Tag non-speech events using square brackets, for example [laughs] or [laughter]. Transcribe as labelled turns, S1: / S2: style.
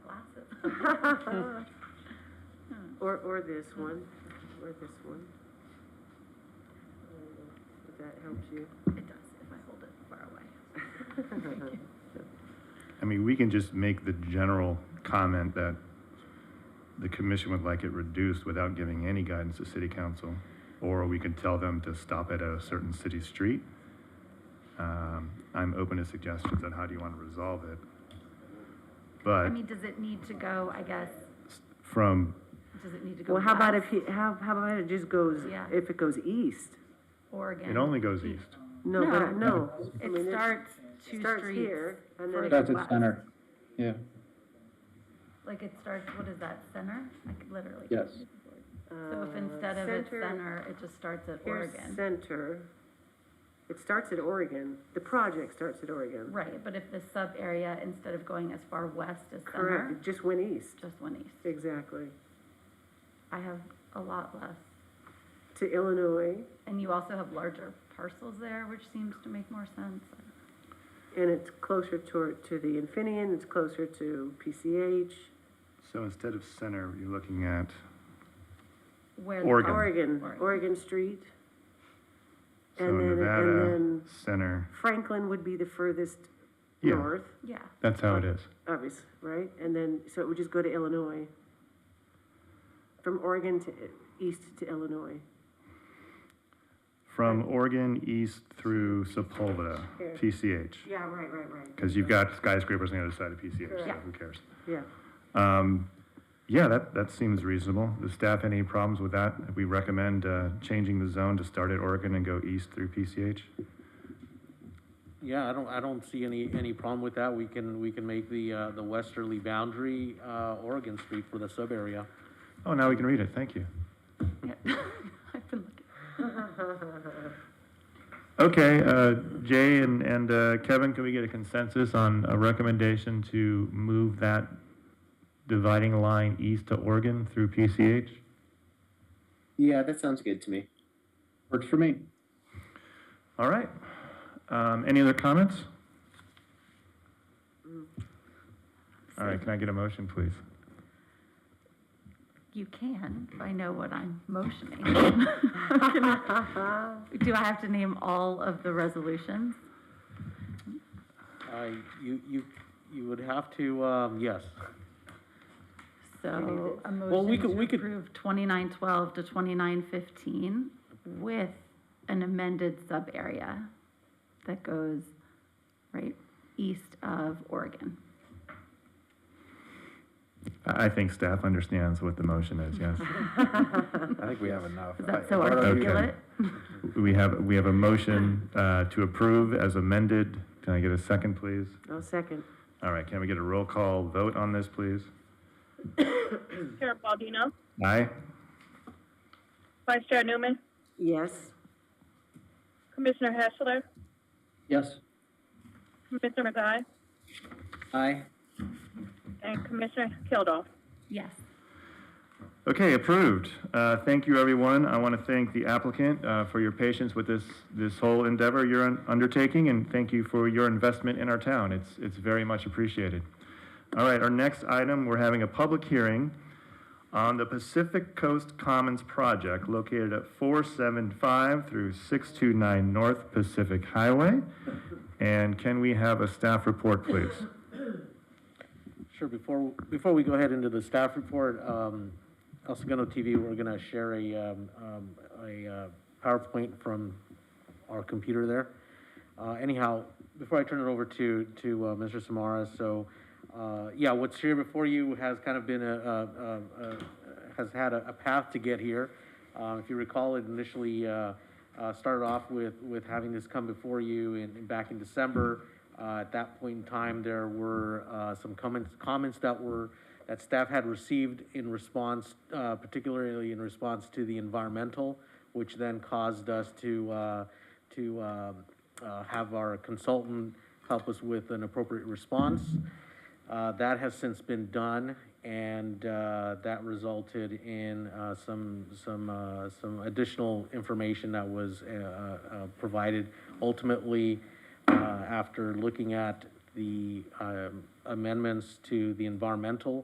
S1: Or, or this one, or this one. If that helps
S2: [laughs]
S1: you.
S2: It does, if I hold it far away.
S3: I mean, we can just make the general comment that the commission would like it reduced without giving any guidance to city council. Or we could tell them to stop at a certain city street. Um, I'm open to suggestions on how do you want to resolve it.
S2: I
S3: But
S2: mean, does it need to go, I guess,
S3: from,
S2: does it need to go?
S1: Well, how about if
S2: west
S1: you, how, how about it just goes,
S2: Yeah.
S1: if it goes east?
S2: Or again?
S3: it only goes east.
S1: No, but, I- no.
S2: No.
S1: I mean,
S2: It starts
S1: It
S2: two
S1: starts
S2: streets.
S1: here, and then it
S4: That's
S1: goes
S4: at
S1: west.
S4: center, yeah,
S2: Like it starts, what is that, center? I could literally.
S4: yes.
S2: So if instead of it's center, it just starts at
S1: Here's
S2: Oregon?
S1: Uh, center. It starts at Oregon. The project starts at Oregon.
S2: Right, but if the sub area, instead of going as far west as
S1: Correct,
S2: center,
S1: it just went east.
S2: just went east.
S1: Exactly.
S2: I have a lot less.
S1: To Illinois,
S2: And you also have larger parcels there, which seems to make more sense.
S1: and it's closer to, to the Infineon, it's closer to PCH,
S3: So instead of center, you're looking at,
S2: Where the
S3: Oregon.
S2: park-
S1: Oregon,
S2: Oregon.
S1: Oregon Street.
S3: so
S1: And then- and
S3: Nevada,
S1: then-
S3: center.
S1: Franklin would be the furthest
S3: Yeah.
S1: north,
S2: Yeah, [laughs]
S3: That's how it is.
S1: obvious, right? And then, so it would just go to Illinois. From Oregon to, east to Illinois.
S3: From Oregon east through Sepulveda,
S1: Here.
S3: PCH.
S1: Yeah, right, right, right.
S3: Because you've got skyscrapers on the other side of PCH, so
S1: Correct.
S3: who cares?
S1: Yeah,
S3: Um, yeah, that, that seems reasonable. The staff, any problems with that? We recommend, uh, changing the zone to start at Oregon and go east through PCH?
S5: Yeah, I don't, I don't see any, any problem with that. We can, we can make the, uh, the westerly boundary, uh, Oregon Street for the sub-area.
S3: Oh, now we can read it, thank you.
S2: yeah. I've been looking.
S3: Okay, uh, Jay and, and, uh, Kevin, can we get a consensus on a recommendation to move that dividing line east to Oregon through PCH?
S6: Yeah, that sounds good to me.
S4: Works for me.
S3: All right. Um, any other comments? All right, can I get a motion, please?
S2: You can, if I know what I'm motioning. [laughs] Do I have to name all of the resolutions?
S5: Uh, you, you, you would have to, um, yes.
S2: So a
S5: Well, we could-
S2: motion
S5: we
S2: to
S5: could-
S2: approve twenty-nine twelve to twenty-nine fifteen with an amended sub-area that goes right east of Oregon.
S3: I I think staff understands what the motion is, yes.
S7: I think we have enough.
S2: Is that so
S7: I-
S2: articulate?
S3: We have, we have a motion uh, to approve as amended. Can I get a second, please?
S1: I'll second.
S3: All right, can we get a roll call vote on this, please?
S8: Chair Baldino,
S3: Aye?
S8: Vice Chair Newman,
S1: Yes,
S8: Commissioner Hessler,
S4: Yes.
S8: Commissioner McGuire,
S4: Aye.
S8: and Commissioner Kilduff.
S2: Yes.
S3: Okay, approved. Uh, Thank you, everyone. I want to thank the applicant uh, for your patience with this, this whole endeavor you're un- undertaking, and thank you for your investment in our town. It's, it's very much appreciated. All right, our next item, we're having a public hearing on the Pacific Coast Commons Project located at 475 through 629 North Pacific Highway. And can we have a staff report, please?
S5: Sure, before, before we go ahead into the staff report, um, El Segundo TV, we're gonna share a, um, um, a, uh, PowerPoint from our computer there. Uh, anyhow, before I turn it over to, to, uh, Mr. Samara, so, uh, yeah, what's here before you has kind of been a, a, a, a uh, has had a, a path to get here. Uh, if you recall, it initially, uh, uh, started off with, with having this come before you in, in back in December. Uh, at that point in time, there were, uh, some comments, comments that were, that staff had received in response, uh, particularly in response to the environmental, which then caused us to, uh, to, uh, uh, have our consultant help us with an appropriate response. Uh, that has since been done, and, uh, that resulted in, uh, some, some, uh, some additional information that was, uh, uh, provided. Ultimately, uh, after looking at the, um, amendments to the environmental